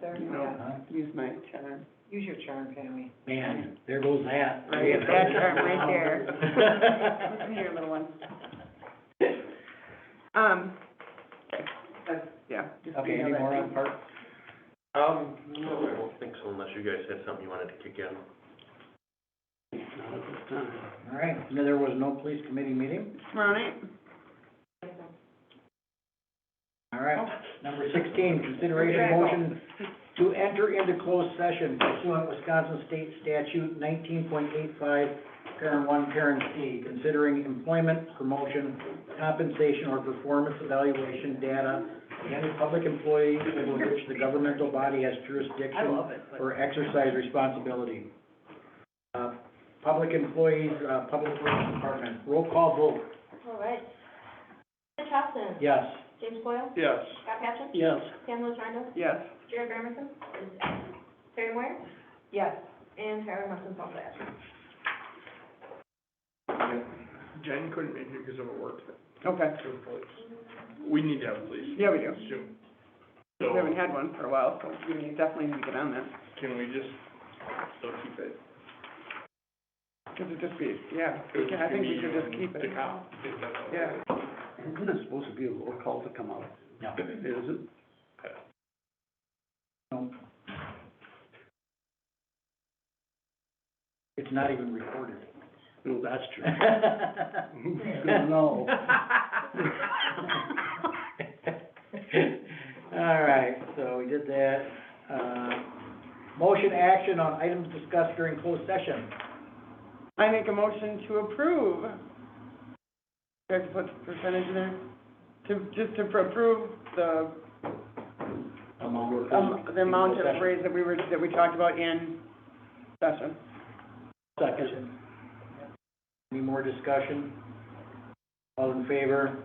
there? No. Yeah. Huh? Use my charm. Use your charm, Tammy. Man, there goes that. Right, that arm right there. Come Here, little one. Um, that's, yeah. just Okay, any more email that to on me. park? Um, no, I don't think so unless you guys had something you wanted to kick in. All right, no, there was no police committee meeting? All right. All right, number sixteen, consideration motion to enter into closed session pursuant Wisconsin State Statute nineteen point eight five, parent one, parent C, considering employment, promotion, compensation, or performance evaluation data of any public employee over which the governmental body has jurisdiction it, or exercise responsibility. Uh, Public employees, uh, public works department, roll call vote, All right. Rich Hudson. yes. James Boyle. Yes. Scott Patchen. Yes. Sam Rondo. Yes. Jared Gramerson. is absent. Terry Moyer. Yes. And Tyler Muslin's also absent. Jen couldn't make it because of her work, Okay, so the police. We need to have a police yeah, we do. soon. We haven't So had one for a while, so we definitely need to get on that. can we just still keep it? Cause it just be, yeah, we can- I think we should just keep it. Is that all? Yeah. Isn't it supposed to be a roll call to come out? No. Is it? No. It's not even recorded. No, that's true. No. All right, so we did that. Uh, Motion action on items discussed during closed session. I make a motion to approve. Do I have to put the percentage in there? To, just to approve the, um, the amount of raise that we were, that we talked about in session. Second. Any more discussion? All in favor?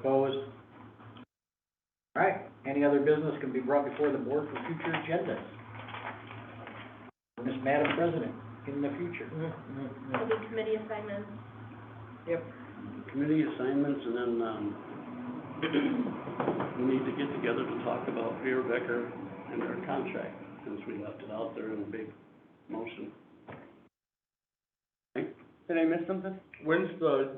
Opposed? All right, any other business can be brought before the board for future agendas? Miss Madam President, in the future. Will be committee assignments. Committee assignments and then, um, we need to get together to talk about Pierre Becker and our contract, since we left it out there in a big motion. Did I miss something? When's the,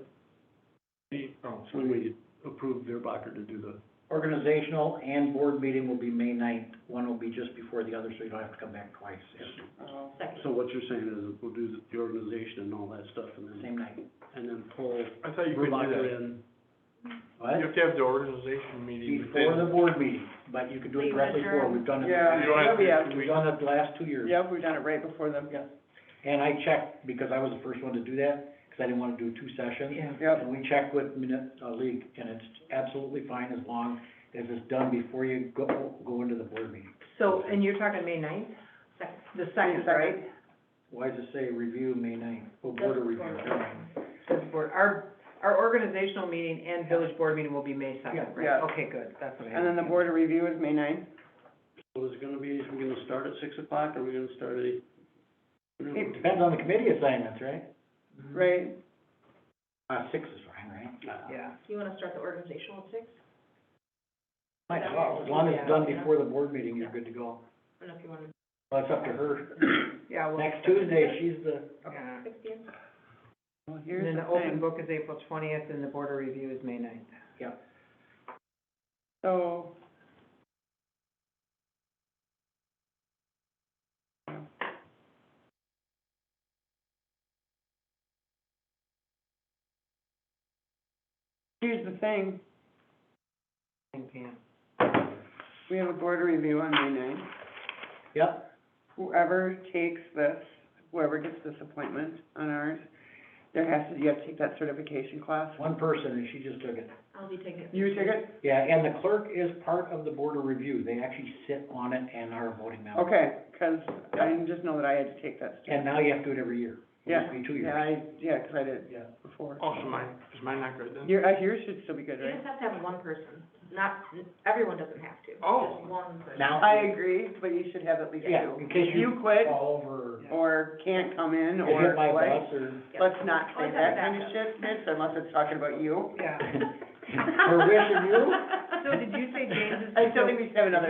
the, oh, So we approved Pierre Becker to do the, Organizational and board meeting will be May ninth, one will be just before the other, so you don't have to come back twice, It's Oh. so what you're saying is we'll do the- the organization and all that stuff and the same then, night. and then pull I thought you Pierre could do Becker that. in. You What? have to have the organization meeting Before the within. board meeting, but you could do it Leave directly adjourn. before, we've done it. Yeah. You don't have to Yeah, do it We've two weeks. done it the last two years. Yep, we've done it right before the, yes. And I checked, because I was the first one to do that, because I didn't want to do two sessions. Yep. And we checked with Minute, uh, League, and it's absolutely fine as long as it's done before you go, go into the board meeting. So, and you're talking May ninth? Second. The second, right? Why does it say review May ninth, or board of review? This board, our, our organizational meeting and village board meeting will be May Yeah. second, Yeah. right? Okay, good, that's what I. And then the board of review is May ninth. So is it gonna be, are we gonna start at six o'clock or are we gonna start at eight? I don't know. Eight. Depends on the committee assignments, right? Mm-hmm. right? Uh, six is fine, right? Uh, Yeah. You wanna start the organizational at six? Might as well, as long as it's done before the board meeting, you're good to go. I don't know if you wanna, Well, it's up to her. Yeah, well. Next Tuesday, she's the, yeah. sixteen? Well, here's And then the the open thing. book is April twentieth and the board of review is May ninth. So. Here's the thing, Thank you. we have a board review on May ninth. yep, Whoever takes this, whoever gets this appointment on ours, there has to, you have to take that certification class. one person, and she just took it. I'll be taking it. You take it? Yeah, and the clerk is part of the board of review, they actually sit on it and are a voting member. Okay, 'cause I just know that I had to take that. And now you have to do it every year. It used to be two Yeah, years. I, yeah, 'cause I did it Yeah. before. Oh, so mine, is mine not good then? Your, uh, yours should still be good, You right? just have to have one person, not, everyone doesn't have to. Oh. Just one person. Now. I agree, but you should have at least two. Yeah, in case If you you quit Fall over, or can't come in or or hit by like, bus or. Yeah. let's not say Always have that a kind of backup. shit, bitch, unless it's talking about you. Yeah. For wish of you? I still think we should have another